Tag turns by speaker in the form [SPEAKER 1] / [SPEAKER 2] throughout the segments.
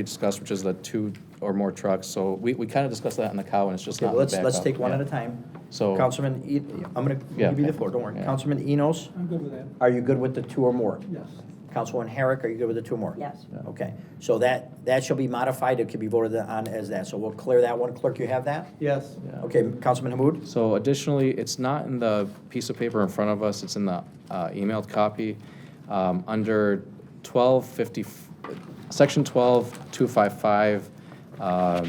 [SPEAKER 1] we discussed, which is the two or more trucks. So we, we kind of discussed that on the cow, and it's just
[SPEAKER 2] Okay,
[SPEAKER 1] not
[SPEAKER 2] well,
[SPEAKER 1] in the
[SPEAKER 2] let's, let's
[SPEAKER 1] backup.
[SPEAKER 2] take one
[SPEAKER 1] Yeah.
[SPEAKER 2] at a time.
[SPEAKER 1] So-
[SPEAKER 2] Councilman, E- I'm gonna
[SPEAKER 1] Yeah.
[SPEAKER 2] give you the floor, don't worry.
[SPEAKER 1] Yeah.
[SPEAKER 2] Councilman Enos,
[SPEAKER 3] I'm good with that,
[SPEAKER 2] are you good with the two or more?
[SPEAKER 3] yes.
[SPEAKER 2] Councilman Herrick, are you good with the two or more?
[SPEAKER 4] Yes.
[SPEAKER 2] Okay, so that, that shall be modified, it can be voted on as that, so we'll clear that one. Clerk, you have that?
[SPEAKER 3] Yes.
[SPEAKER 1] Yeah.
[SPEAKER 2] Okay, Councilman Hamud?
[SPEAKER 1] So additionally, it's not in the piece of paper in front of us, it's in the uh, emailed copy. Um, Under 1250, section 12255, um,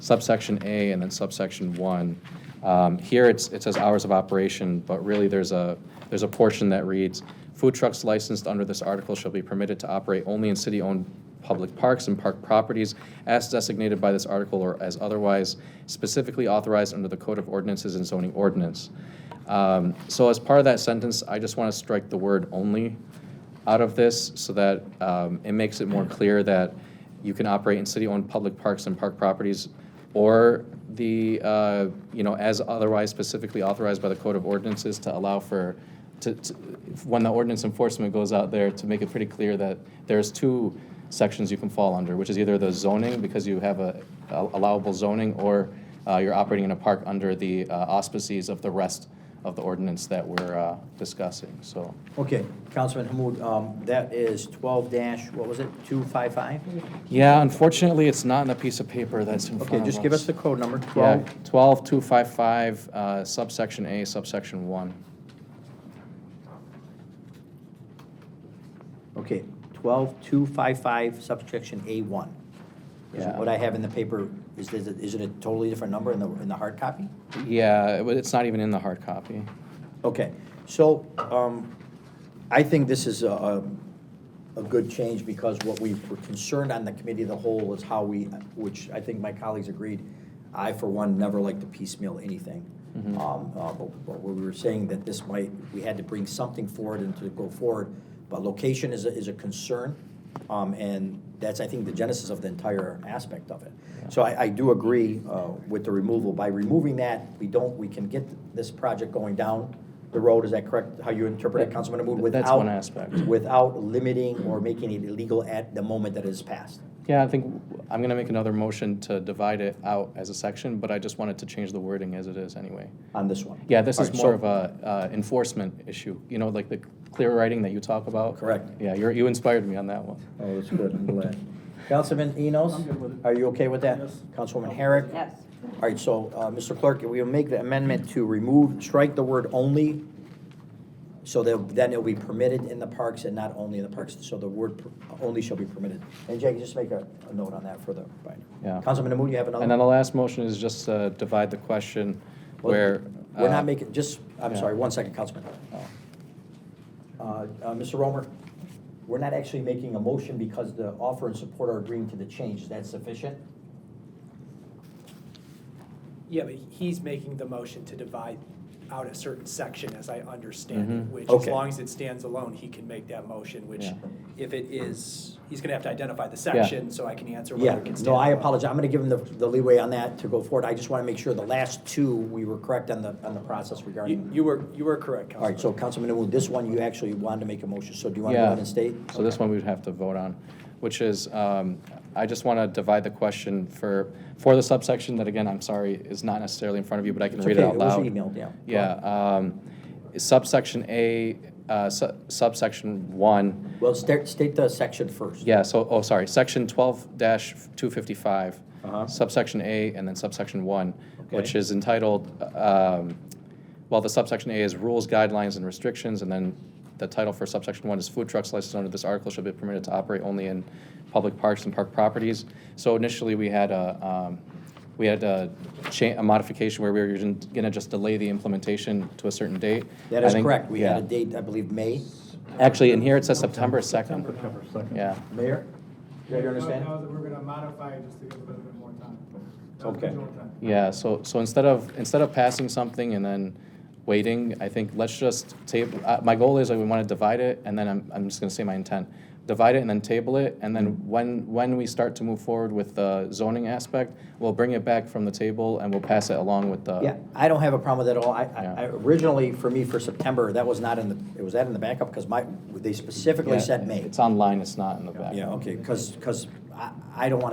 [SPEAKER 1] subsection A and then subsection 1. Um, Here, it's, it says hours of operation, but really, there's a, there's a portion that reads, "Food trucks licensed under this article shall be permitted to operate only in city-owned public parks and park properties as designated by this article or as otherwise specifically authorized under the Code of Ordinances and zoning ordinance. Um, So as part of that sentence, I just want to strike the word "only" out of this so that um, it makes it more clear that you can operate in city-owned public parks and park properties or the, uh, you know, as otherwise specifically authorized by the Code of Ordinances to allow for, to, to- when the ordinance enforcement goes out there, to make it pretty clear that there's two sections you can fall under, which is either the zoning, because you have a a- allowable zoning, or uh, you're operating in a park under the uh, auspices of the rest of the ordinance that we're uh, discussing, so.
[SPEAKER 2] Okay, Councilman Hamud, um, that is twelve dash, what was it, two five five?
[SPEAKER 1] Yeah, unfortunately, it's not in a piece of paper that's in front
[SPEAKER 2] Okay, just give us the code number, twelve.
[SPEAKER 1] Twelve two five five, uh, subsection A, subsection one.
[SPEAKER 2] Okay, twelve two five five subsection A one. Is
[SPEAKER 1] Yeah.
[SPEAKER 2] what I have in the paper, is, is it- is it a totally different number in the, in the hard copy?
[SPEAKER 1] Yeah, it- it's not even in the hard copy.
[SPEAKER 2] Okay, so, um, I think this is a, a- a good change because what we were concerned on the committee of the whole is how we, which I think my colleagues agreed, I for one never like to piecemeal anything.
[SPEAKER 1] Mm-hmm.
[SPEAKER 2] Um, uh, but, but we were saying that this might, we had to bring something forward and to go forward, but location is a, is a concern. Um, and that's, I think, the genesis of the entire aspect of it. So I, I do agree, uh, with the removal. By removing that, we don't, we can get this project going down the road. Is that correct? How you interpret it, Councilman Mahmoud?
[SPEAKER 1] That's one
[SPEAKER 2] without-
[SPEAKER 1] aspect.
[SPEAKER 2] Without limiting or making it illegal at the moment that it is passed.
[SPEAKER 1] Yeah, I think I'm going to make another motion to divide it out as a section, but I just wanted to change the wording as it is anyway.
[SPEAKER 2] on this one.
[SPEAKER 1] Yeah, this
[SPEAKER 2] All
[SPEAKER 1] is
[SPEAKER 2] right,
[SPEAKER 1] more
[SPEAKER 2] so-
[SPEAKER 1] of a uh, enforcement issue, you know, like the clear writing that you talk about.
[SPEAKER 2] Correct.
[SPEAKER 1] Yeah, you're, you inspired me on that one.
[SPEAKER 2] Oh, that's good, I'm glad. Councilman Enos,
[SPEAKER 3] I'm good with it.
[SPEAKER 2] are you okay with that?
[SPEAKER 3] Yes.
[SPEAKER 2] Councilwoman Herrick?
[SPEAKER 4] Yes.
[SPEAKER 2] All right, so, uh, Mr. Clerk, we will make the amendment to remove, strike the word only, so that then it'll be permitted in the parks and not only in the parks, so the word per- only shall be permitted. And Jake, just make a a note on that for the,
[SPEAKER 1] Yeah.
[SPEAKER 2] Councilman Hamud, you have another?
[SPEAKER 1] And then the last motion is just to divide the question
[SPEAKER 2] Well,
[SPEAKER 1] where.
[SPEAKER 2] We're
[SPEAKER 1] uh,
[SPEAKER 2] not making, just, I'm
[SPEAKER 1] yeah.
[SPEAKER 2] sorry, one second, Councilman.
[SPEAKER 1] oh.
[SPEAKER 2] Uh, uh, Mr. Romer, we're not actually making a motion because the offer and support are agreeing to the change. Is that sufficient?
[SPEAKER 5] Yeah, but he's making the motion to divide out a certain section, as I understand it,
[SPEAKER 1] Mhm.
[SPEAKER 5] which, as
[SPEAKER 2] Mm-hmm. Okay.
[SPEAKER 5] long as it stands alone, he can make that motion, which,
[SPEAKER 1] Yeah.
[SPEAKER 5] if it is, he's gonna have to identify the section, so I can answer whether
[SPEAKER 2] Yeah,
[SPEAKER 5] it can stand.
[SPEAKER 2] no, I
[SPEAKER 5] alone.
[SPEAKER 2] apologize. I'm going to give him the the leeway on that to go forward. I just want to make sure the last two, we were correct on the, on the process
[SPEAKER 5] You,
[SPEAKER 2] regarding.
[SPEAKER 5] you were, you were correct,
[SPEAKER 2] All right, so
[SPEAKER 5] Councilman.
[SPEAKER 2] Councilman Nguyen, this one, you actually wanted to make a motion, so do you want to go
[SPEAKER 1] Yeah.
[SPEAKER 2] ahead and state?
[SPEAKER 1] So this one we would have to vote on, which is, um, I just want to divide the question for, for the subsection that, again, I'm sorry, is not necessarily in front of you, but I can
[SPEAKER 2] It's
[SPEAKER 1] read it
[SPEAKER 2] okay,
[SPEAKER 1] out
[SPEAKER 2] it was
[SPEAKER 1] loud.
[SPEAKER 2] emailed, yeah. Go
[SPEAKER 1] Yeah. um, Subsection A, uh, su- subsection 1,
[SPEAKER 2] Well, state, state the section first.
[SPEAKER 1] yeah, so, oh, sorry, section twelve two fifty-five,
[SPEAKER 2] Uh-huh.
[SPEAKER 1] subsection A, and then subsection one, which
[SPEAKER 2] Okay.
[SPEAKER 1] is entitled, um, well, the subsection A is rules, guidelines, and restrictions, and then the title for subsection one is food trucks licensed under this article shall be permitted to operate only in public parks and park properties. So initially, we had a, um, we had a cha, a modification where we were gonna just delay the implementation to a certain date.
[SPEAKER 2] That
[SPEAKER 1] I
[SPEAKER 2] is
[SPEAKER 1] think-
[SPEAKER 2] correct. We had a
[SPEAKER 1] yeah.
[SPEAKER 2] date, I believe, May.
[SPEAKER 1] Actually, in here, it says September second,
[SPEAKER 3] September second.
[SPEAKER 1] yeah.
[SPEAKER 2] Mayor? Do you understand?
[SPEAKER 6] Now that we're gonna modify it just to give a little bit more time. That was
[SPEAKER 2] Okay.
[SPEAKER 6] the general time.
[SPEAKER 1] Yeah, so, so instead of, instead of passing something and then waiting, I think let's just table, uh, my goal is I we want to divide it, and then I'm, I'm just gonna say my intent. Divide it and then table it, and then when, when we start to move forward with the zoning aspect, we'll bring it back from the table and we'll pass it along with the.
[SPEAKER 2] Yeah, I don't have a problem with that at all. I-
[SPEAKER 1] Yeah.
[SPEAKER 2] I, I, originally, for me, for September, that was not in the, it was that in the backup, because my, they specifically
[SPEAKER 1] Yeah,
[SPEAKER 2] said May.
[SPEAKER 1] It's online, it's not in the back.
[SPEAKER 2] Yeah, okay, because, because I, I don't want to